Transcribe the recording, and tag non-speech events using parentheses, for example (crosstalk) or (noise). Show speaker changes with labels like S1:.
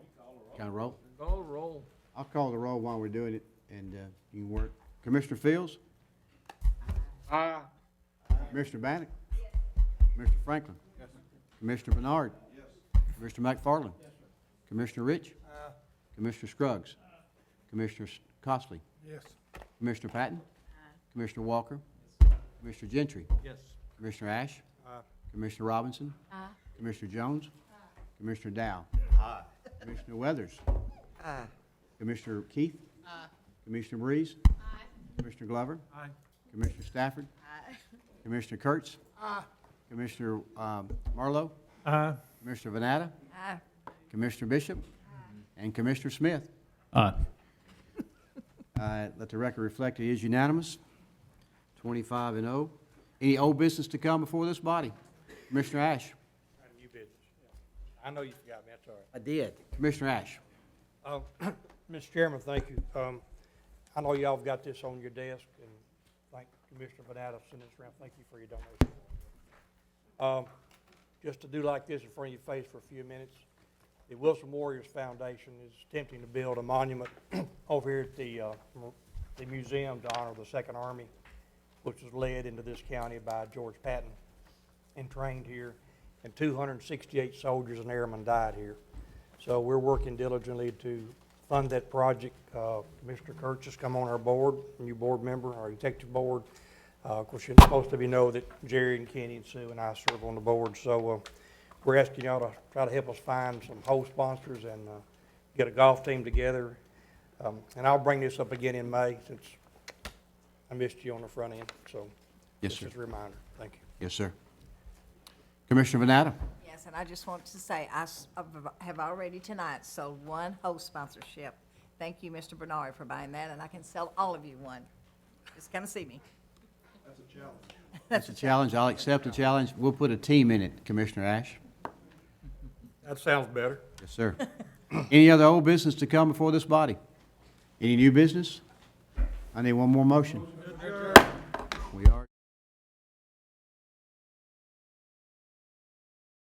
S1: Can I roll?
S2: Call the roll.
S1: I'll call the roll while we're doing it, and uh, you can work. Commissioner Fields?
S2: Aye.
S1: Commissioner Bannick? Commissioner Franklin? Commissioner Bernard? Commissioner McFarland? Commissioner Rich? Commissioner Scruggs? Commissioner S- Costley?
S2: Yes.
S1: Commissioner Patton? Commissioner Walker? Commissioner Gentry?
S2: Yes.
S1: Commissioner Ash?
S2: Aye.
S1: Commissioner Robinson? Commissioner Jones? Commissioner Dow? Commissioner Weathers? Commissioner Keith? Commissioner Breeze? Commissioner Glover?
S2: Aye.
S1: Commissioner Stafford? Commissioner Kurtz? Commissioner um, Marlowe?
S2: Aye.
S1: Commissioner Vanatta? Commissioner Bishop? And Commissioner Smith?
S3: Aye.
S1: (laughs) Uh, Let the record reflect it is unanimous, 25 and 0. Any old business to come before this body? Commissioner Ash?
S2: New business. I know you forgot me, that's all right.
S4: I did.
S1: Commissioner Ash?
S5: Um, (clears throat) Mr. Chairman, thank you. Um, I know y'all have got this on your desk, and thank Commissioner Benado for sending this around. Thank you for your donation. Um, Just to do like this in front of your face for a few minutes, the Wilson Warriors Foundation is attempting to build a monument (clears throat) over here at the, uh, mu- the museum to honor the Second Army, which was led into this county by George Patton and trained here, and 268 soldiers and airmen died here. So we're working diligently to fund that project. Uh, Commissioner Kurtz has come on our board, new board member, our executive board. Uh, Of course, you're supposed to be know that Jerry and Kenny and Sue and I serve on the board, so uh, we're asking y'all to try to help us find some host sponsors and uh, get a golf team together. Um, And I'll bring this up again in May, since I missed you on the front end, so.
S1: Yes, sir.
S5: Just as a reminder, thank you.
S1: Yes, sir. Commissioner
S4: (laughs)
S1: Vanatta?
S6: Yes, and I just want to say, I s- I've- have already tonight sold one host sponsorship. Thank you, Mr. Bernard, for buying that, and I can sell all of you one. Just come see me.
S1: That's a challenge. I'll accept the challenge. We'll put a team in it, Commissioner Ash.
S5: That sounds better.
S4: (laughs)
S1: Yes, sir. Any other old business to come before this body? Any new business? I need one more motion. We are.